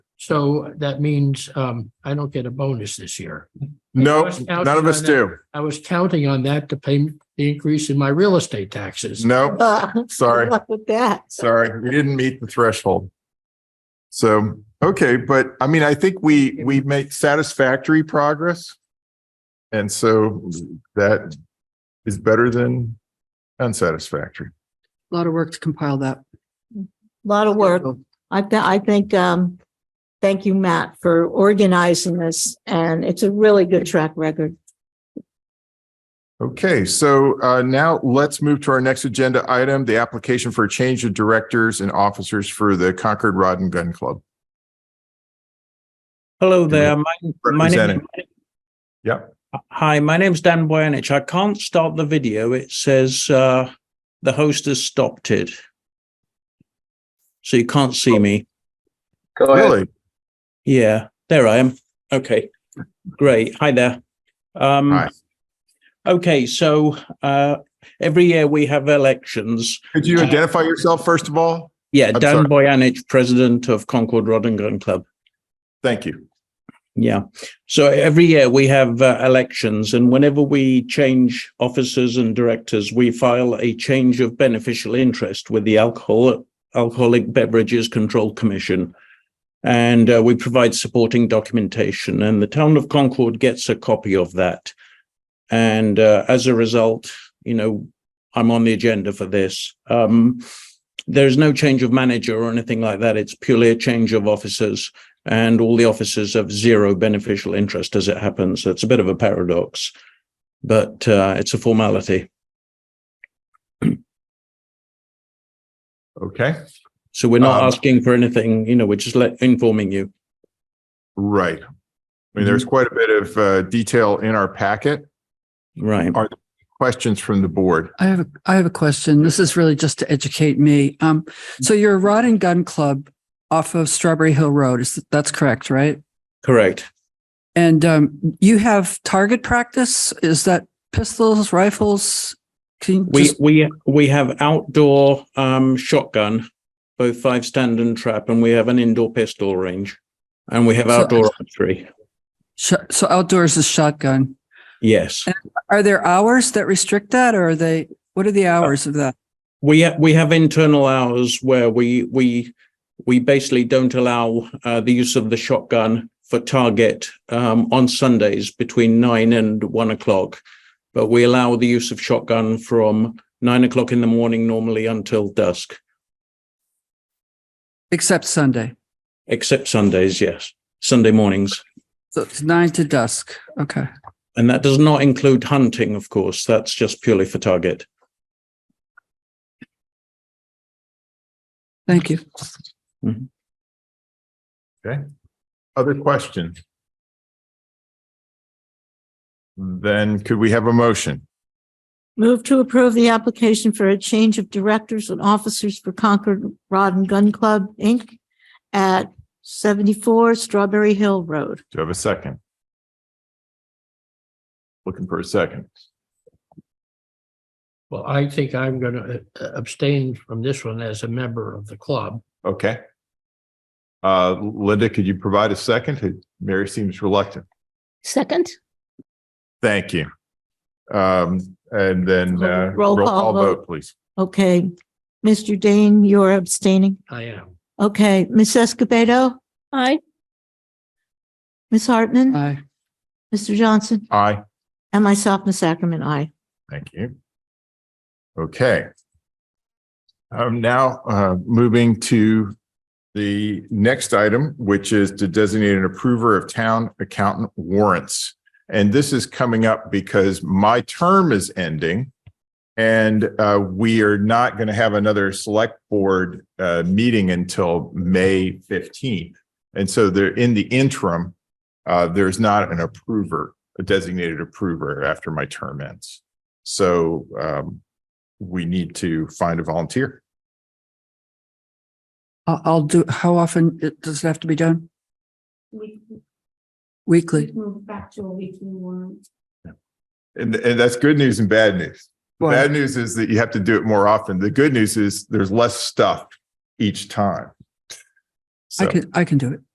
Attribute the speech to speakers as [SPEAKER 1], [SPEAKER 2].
[SPEAKER 1] So that means um I don't get a bonus this year.
[SPEAKER 2] No,
[SPEAKER 1] Russ Couch
[SPEAKER 2] none of us
[SPEAKER 1] on
[SPEAKER 2] do.
[SPEAKER 1] I was counting on that to pay the increase in my real estate taxes.
[SPEAKER 2] No,
[SPEAKER 3] Sorry.
[SPEAKER 2] sorry.
[SPEAKER 3] Luck with that.
[SPEAKER 2] Sorry, we didn't meet the threshold. So, okay, but I mean, I think we, we make satisfactory progress. And so that is better than unsatisfactory.
[SPEAKER 4] A lot of work to compile that.
[SPEAKER 3] Lot of work. I, th- I think, um, thank you, Matt, for organizing this and it's a really good track record.
[SPEAKER 2] Okay, so uh, now let's move to our next agenda item, the application for a change of directors and officers for the Concord Rod and Gun Club.
[SPEAKER 5] Hello there.
[SPEAKER 2] Hello.
[SPEAKER 5] My, my name.
[SPEAKER 2] Representing. Yep.
[SPEAKER 5] Hi, my name's Dan Boyanich. I can't start the video. It says uh, the host has stopped it. So you can't
[SPEAKER 2] Oh.
[SPEAKER 5] see me.
[SPEAKER 6] Go ahead.
[SPEAKER 2] Really?
[SPEAKER 5] Yeah, there I am. Okay, great. Hi there. Um,
[SPEAKER 2] Hi.
[SPEAKER 5] Okay, so uh, every year we have elections.
[SPEAKER 2] Could you identify yourself first of all?
[SPEAKER 5] Yeah,
[SPEAKER 2] I'm
[SPEAKER 5] Dan
[SPEAKER 2] sorry.
[SPEAKER 5] Boyanich, president of Concord Rod and Gun Club.
[SPEAKER 2] Thank you.
[SPEAKER 5] Yeah. So every year we have uh, elections, and whenever we change officers and directors, we file a change of beneficial interest with the Alcohol Alcoholic Beverages Control Commission, and uh, we provide supporting documentation. And the town of Concord gets a copy of that, and uh, as a result, you know, I'm on the agenda for this. Um, there's no change of manager or anything like that. It's purely a change of officers and all the officers have zero beneficial interest as it happens. So it's a bit of a paradox, but uh, it's a formality.
[SPEAKER 2] Okay.
[SPEAKER 5] So we're not
[SPEAKER 2] Um,
[SPEAKER 5] asking for anything, you know, we're just let, informing you.
[SPEAKER 2] Right. I mean, there's quite a bit of uh, detail in our packet.
[SPEAKER 5] Right.
[SPEAKER 2] Questions from the board?
[SPEAKER 4] I have, a I have a question. This is really just to educate me. Um, so you're a rod and gun club off of Strawberry Hill Road. Is, that's correct, right?
[SPEAKER 5] Correct.
[SPEAKER 4] And, um, you have target practice? Is that pistols, rifles? Can you
[SPEAKER 5] We,
[SPEAKER 4] just-
[SPEAKER 5] we, we have outdoor um, shotgun, both five stand and trap, and we have an indoor pistol range and we have
[SPEAKER 4] So-
[SPEAKER 5] outdoor archery.
[SPEAKER 4] sh- so outdoors is shotgun.
[SPEAKER 5] Yes.
[SPEAKER 4] Are there hours that restrict that or are they, what are the hours of that?
[SPEAKER 5] we ha- we have internal hours where we we we basically don't allow uh, the use of the shotgun for target um, on Sundays between nine and one o'clock, but we allow the use of shotgun from nine o'clock in the morning normally until dusk,
[SPEAKER 4] Except Sunday.
[SPEAKER 5] except Sundays. Yes, Sunday mornings,
[SPEAKER 4] So it's nine to dusk. Okay.
[SPEAKER 5] and that does not include hunting, of course. That's just purely for target.
[SPEAKER 4] Thank you.
[SPEAKER 2] Other questions? Then could we have a motion?
[SPEAKER 3] Move to approve the application for a change of directors and officers for Concord Rod and Gun Club, Inc. at seventy-four Strawberry Hill Road.
[SPEAKER 2] Do you have a second? Looking for a second.
[SPEAKER 1] Well, I think I'm gonna uh, abstain from this one as a member of the club.
[SPEAKER 2] Okay. Uh, Linda, could you provide a second? Mary seems reluctant.
[SPEAKER 7] Second,
[SPEAKER 2] Thank you. Um, and then, uh,
[SPEAKER 3] Roll call vote.
[SPEAKER 2] please.
[SPEAKER 3] Okay. Mr. Dane, you're abstaining.
[SPEAKER 1] I am.
[SPEAKER 3] Okay. Ms. Escobedo,
[SPEAKER 7] aye.
[SPEAKER 3] Ms. Hartman,
[SPEAKER 4] Bye.
[SPEAKER 3] Mr. Johnson,
[SPEAKER 2] Aye.
[SPEAKER 3] and myself, Ms. Ackerman, I.
[SPEAKER 2] Thank you. Okay. I'm now uh, moving to the next item, which is to designate an approver of town accountant warrants. And this is coming up because my term is ending. And uh, we are not going to have another select board uh, meeting until May 15th. And so there, in the interim, uh, there's not an approver, a designated approver after my term ends. So um, we need to find a volunteer.
[SPEAKER 4] I'll, I'll do, how often it, does it have to be done? Weekly?
[SPEAKER 8] Move back to a weekly warrant.
[SPEAKER 2] And, and that's good news and bad news. The
[SPEAKER 4] Well,
[SPEAKER 2] Bad news is that you have to do it more often. The good news is there's less stuff each time.
[SPEAKER 4] I
[SPEAKER 2] So,
[SPEAKER 4] can, I can do it.